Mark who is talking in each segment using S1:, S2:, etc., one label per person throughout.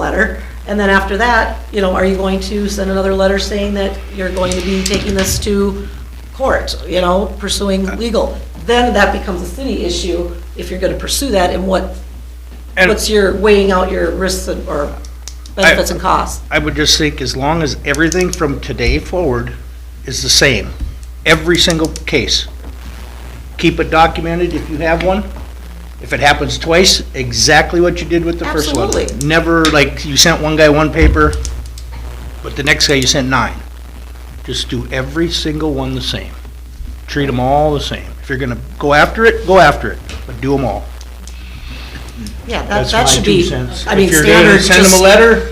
S1: letter. And then after that, you know, are you going to send another letter saying that you're going to be taking this to court, you know, pursuing legal? Then that becomes a city issue if you're gonna pursue that and what,
S2: And-
S1: what's your weighing out your risks and- or benefits and costs?
S2: I would just think as long as everything from today forward is the same, every single case. Keep it documented if you have one. If it happens twice, exactly what you did with the first one.
S1: Absolutely.
S2: Never like you sent one guy one paper, but the next guy you sent nine. Just do every single one the same. Treat them all the same. If you're gonna go after it, go after it, but do them all.
S1: Yeah, that,
S2: That's
S1: that
S2: my
S1: should
S2: two
S1: be,
S2: cents.
S1: I mean,
S2: If you're gonna
S1: standard,
S2: Send them a
S1: just,
S2: letter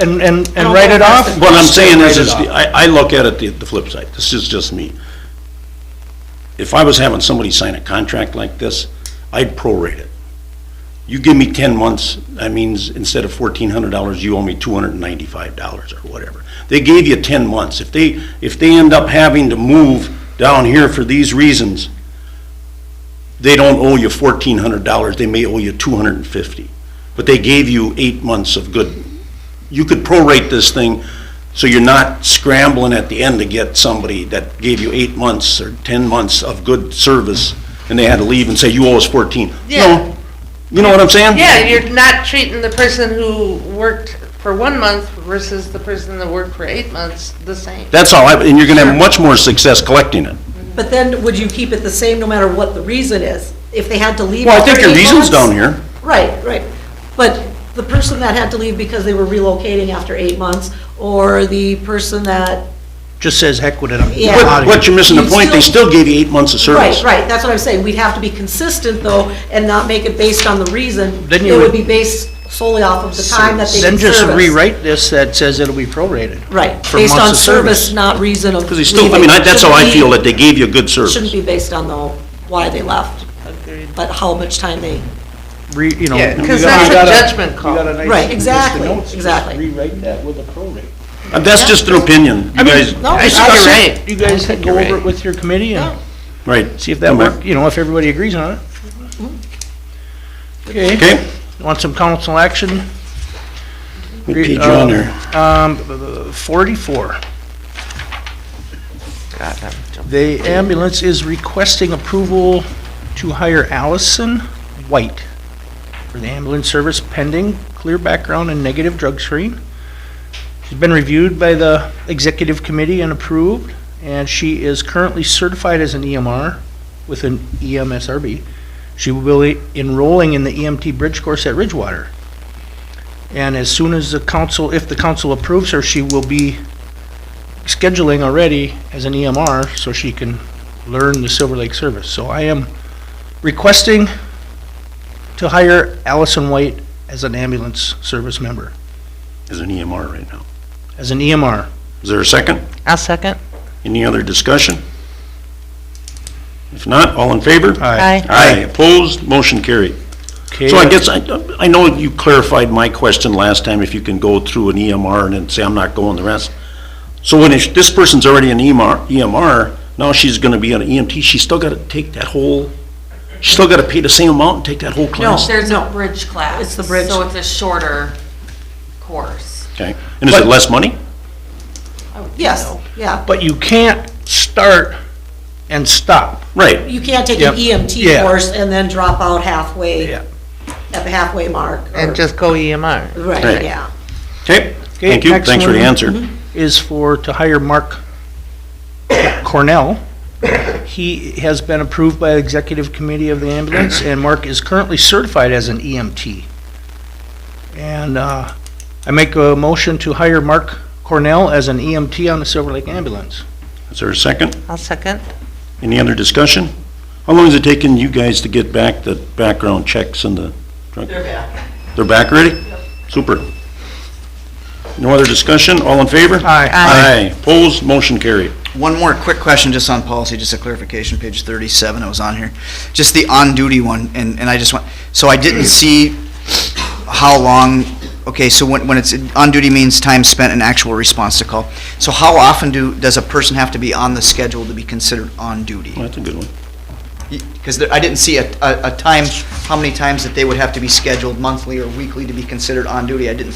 S2: and, and,
S1: I
S2: and
S1: don't
S2: write
S1: know
S2: it
S1: if
S2: off.
S1: that's the-
S3: What I'm saying is, is,
S2: Write it off.
S3: I, I look at it the, the flip side, this is just me. If I was having somebody sign a contract like this, I'd prorate it. You give me ten months, that means instead of fourteen hundred dollars, you owe me two hundred and ninety-five dollars or whatever. They gave you ten months, if they, if they end up having to move down here for these reasons, they don't owe you fourteen hundred dollars, they may owe you two hundred and fifty. But they gave you eight months of good, you could prorate this thing, so you're not scrambling at the end to get somebody that gave you eight months or ten months of good service, and they had to leave and say, you owe us fourteen.
S4: Yeah.
S3: No, you know what I'm saying?
S4: Yeah, you're not treating the person who worked for one month versus the person that worked for eight months the same.
S3: That's all, I- and you're gonna have much more success collecting it.
S1: but then would you keep it the same no matter what the reason is? If they had to leave.
S3: Well, I think
S1: after
S3: your
S1: eight months?
S3: reason's down here.
S1: Right, right. But the person that had to leave because they were relocating after eight months, or the person that,
S2: Just says heck with it, I'm
S1: Yeah.
S2: I'm outta
S3: But,
S2: here.
S3: but you're missing the
S1: You
S3: point, they
S1: still-
S3: still gave you eight months of
S1: right,
S3: service.
S1: right, that's what I'm saying. We'd have to be consistent, though, and not make it based on the reason.
S2: Then you
S1: It would
S2: would-
S1: be based solely off of the time that they
S2: Then
S1: did service.
S2: just rewrite this that says it'll be prorated.
S1: Right,
S2: for
S1: based
S2: months
S1: on
S2: of
S1: service, not reason of
S3: Because they still, I mean, I- that's how I feel, that they gave you good service.
S1: Shouldn't be based on, though, why they left,
S4: Agreed.
S1: but how much time they,
S2: Re, you know.
S4: Yeah,
S2: you
S4: 'cause
S2: got-
S4: that's
S2: you
S4: a
S2: got
S4: judgment
S2: you
S4: call.
S2: got a nice
S1: Right,
S2: list of
S1: exactly,
S2: notes, just
S1: exactly.
S2: Rewrite that with a prorate.
S3: And that's
S1: Yeah.
S3: just an opinion, you guys.
S1: no, I
S4: think you're
S2: discuss it.
S4: right.
S2: You guys
S4: I think
S2: go
S4: you're
S2: over it
S4: right.
S2: with your committee and
S3: Right.
S2: see if that
S3: Okay.
S2: worked, you know, if everybody agrees on it.
S1: Mm-hmm.
S2: Okay,
S3: Okay,
S2: want some council action?
S3: what page you on there?
S2: Um, forty-four.
S4: God, I'm jumping.
S2: The ambulance is requesting approval to hire Allison White for the ambulance service pending clear background and negative drug screen. She's been reviewed by the executive committee and approved, and she is currently certified as an EMR with an E EMSRB. She will be enrolling in the EMT bridge course at Ridgewater. And as soon as the council, if the council approves her, she will be scheduling already as an EMR so she can learn the Silver Lake service. So I am requesting to hire Allison White as an ambulance service member,
S3: Is an EMR right now.
S2: as an E EMR.
S3: Is there a second?
S4: I'll second.
S3: Any other discussion? If not, all in favor?
S2: Aye.
S3: Aye, opposed, motion carried.
S2: Okay,
S3: So I guess I, I know you clarified my question last time, if you can go through an EMR and then say, I'm not going the rest. So when if this person's already an E EMR, EMR, now she's gonna be an EMT, she's still gotta take that whole, she's still gotta pay the same amount and take that whole class?
S5: There's a bridge class.
S1: It's the bridge.
S5: So it's a shorter course.
S3: Okay, and is it less money?
S1: yes, yeah.
S2: But you can't start and stop.
S3: Right,
S1: You can't take an
S2: Yep.
S1: EMT
S2: Yeah.
S1: course and then drop out halfway,
S2: Yeah.
S1: at the halfway mark. or-
S4: And just go E EMR.
S1: Right,
S3: Right.
S1: yeah.
S3: okay,
S2: Okay,
S3: thank you,
S2: next
S3: thanks for the
S2: one. Mm-hmm.
S3: answer.
S2: is for, to hire Mark Cornell. He has been approved by the executive committee of the ambulance, and Mark is currently certified as an EMT. And uh, I make a motion to hire Mark Cornell as an EMT on the Silver Lake Ambulance.
S3: Is there a second?
S4: I'll second.
S3: Any other discussion? How long has it taken you guys to get back the background checks and the drug? They're back. They're back already? Super. No other discussion? All in favor?
S2: Aye.
S3: Aye. Opposed? Motion carried.
S6: One more quick question just on policy, just a clarification, page thirty-seven, I was on here. Just the on-duty one, and, and I just want, so I didn't see how long, okay, so when, when it's, on-duty means time spent in actual response to call. So how often do, does a person have to be on the schedule to be considered on
S3: Well,
S6: duty?
S3: That's a good one.
S6: Because I didn't see a, a, a time, how many times that they would have to be scheduled monthly or weekly to be considered on duty, I didn't